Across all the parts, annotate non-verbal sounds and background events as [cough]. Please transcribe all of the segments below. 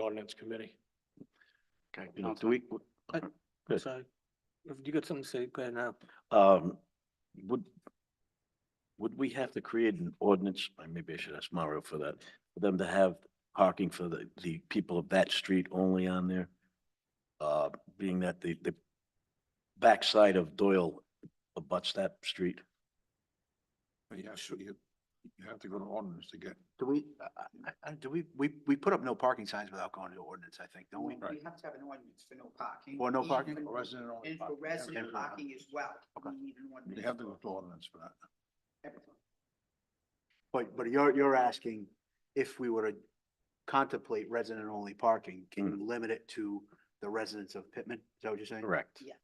ordinance committee. Okay, do- do we, Uh, Good. Sorry, if you got something to say, go ahead now. um, would, would we have to create an ordinance, uh, maybe I should ask Mario for that, for them to have parking for the, the people of that street only on there? Uh, being that the, the backside of Doyle abuts that street. Yeah, sure, you, you have to go to ordinance to get, Do we, I, I, I- do we, we, we put up no parking signs without going to ordinance, I think, don't we? You have to have an ordinance for no parking. Or no even parking, for Oh, resident only. And for parking. resident parking as well. Okay. You need an ordinance. They have to go to ordinance for that. Everything. But, but you're, you're asking if we were to contemplate resident-only parking, can you limit it to the residents of Pittman? Is that what you're saying? Correct. Yes,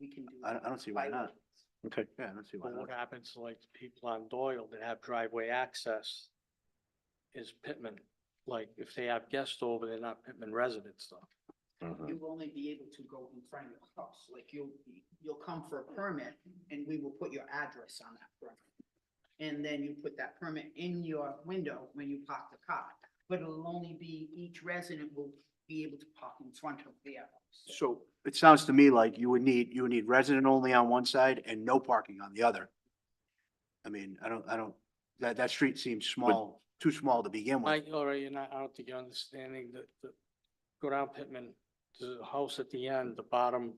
we can do. I, that I don't see by why not. ordinance. Okay, Yeah, I don't see why But what not. happens to, like people on Doyle that have driveway access is Pittman. Like if they have guests over, they're not Pittman residents though. mhm. You'll only be able to go in front of your house, like you'll, you'll come for a permit and we will put your address on that permit. And then you put that permit in your window when you park the car, but it'll only be, each resident will be able to park in front of their house. So it sounds to me like you would need, you would need resident-only on one side and no parking on the other. I mean, I don't, I don't, that, that street seems small, too small to begin with. Mike, all right, you're not, I don't think you're understanding that, that, go down Pittman, the house at the end, the bottom,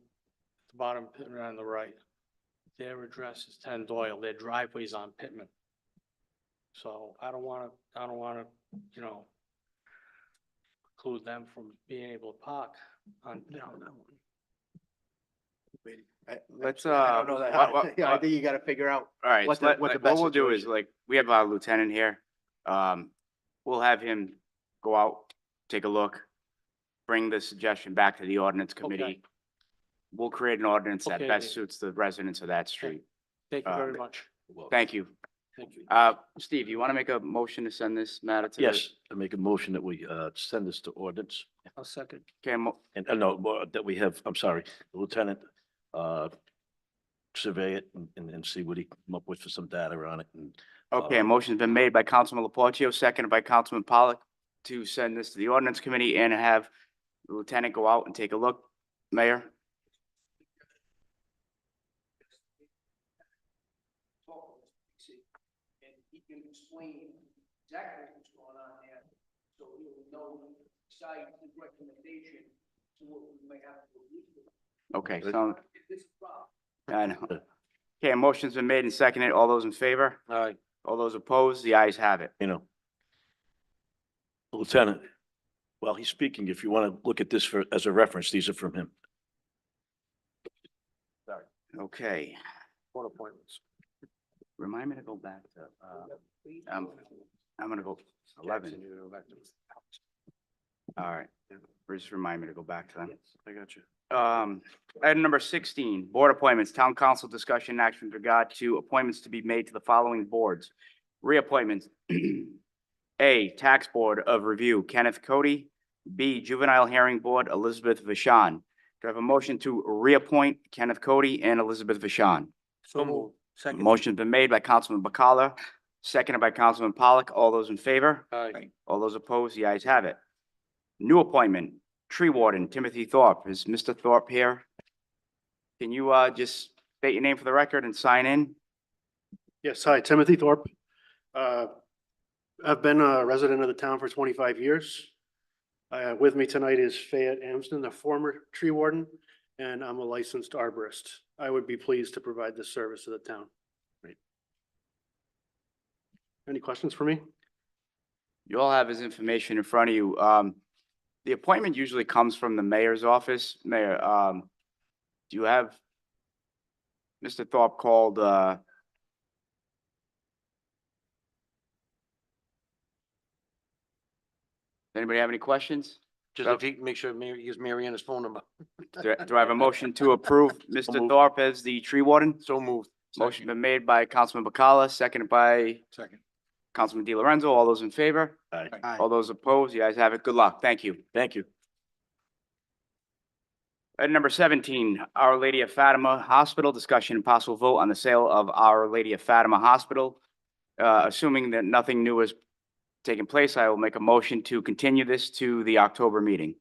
the bottom Pittman on the right. Their address is ten Doyle, their driveway's on Pittman. So I don't wanna, I don't wanna, you know, preclude them from being able to park on, you know, I- Let's, I uh, don't know that. wha- wha- Yeah, [laughs] I uh, think you gotta figure out. all right, what the- so let- what the like, what best we'll do is situation like, we have our lieutenant here. Um, we'll have him go out, take a look, bring the suggestion back to the ordinance committee. We'll create an ordinance that Okay, best Dave. suits the residents of that street. thank you Uh, Um, very much. Well, Thank you. Thank you. Uh, Steve, you want to make a motion to send this matter to? the- Yes, I make a motion that we, uh, send this to ordinance I'll second. Okay, mo- and, uh, no, well, that we have, I'm sorry, Lieutenant, uh, survey it and- and, and see what he come up with for some data on it and Uh, okay, a motion's been made by Councilman Laportio, seconded by Councilman Pollock to send this to the ordinance committee and have the lieutenant go out and take a look. Mayor? talk with Pixie, and he can explain exactly what's going on there, so he'll know, decide his recommendation to what we may have to do. Okay, so, If this is wrong, I know. Okay, a motion's been made and seconded. All those in favor? All right, All those opposed? The ayes have it. you know. Lieutenant, while he's speaking, if you want to look at this for, as a reference, these are from him. Okay, board appointments. remind me to go back to, uh, please. Um, I'm gonna go eleven. All right, just remind me to go back to them. I got you. Um, item number sixteen, board appointments, town council discussion and action with regard to appointments to be made to the following boards. Reappointments. [clears throat] A, Tax Board of Review, Kenneth Cody. B, Juvenile Hearing Board, Elizabeth Vashon. Do I have a motion to reappoint Kenneth Cody and Elizabeth Vashon? So moved. Second. Motion's been made by Councilman Bacala, seconded by Councilman Pollock. All those in favor? All right, Right. All those opposed, the ayes have it. New appointment, tree warden Timothy Thorpe. Is Mr. Thorpe here? Can you, uh, just state your name for the record and sign in? Yes, hi, Timothy Thorpe. Uh, I've been a resident of the town for twenty-five years. Uh, With me tonight is Fayette Amsden, the former tree warden, and I'm a licensed arborist. I would be pleased to provide this service to the town. Any questions for me? You all have his information in front of you. Um, the appointment usually comes from the mayor's office. Mayor, um, do you have Mr. Thorpe called, uh, anybody have any questions? Just if he, make sure Mary, use Mariana's phone number. Do do I have a motion to approve Mr. Thorpe as the tree warden? So moved. Motion been made by Councilman Bacala, seconded by Second. Councilman Di Lorenzo. All those in favor? Aye. All those opposed? You guys have it. Good luck. Thank you. Thank you. Item number seventeen, Our Lady of Fatima Hospital, discussion and possible vote on the sale of Our Lady of Fatima Hospital. Uh, assuming that nothing new is taken place, I will make a motion to continue this to the October meeting.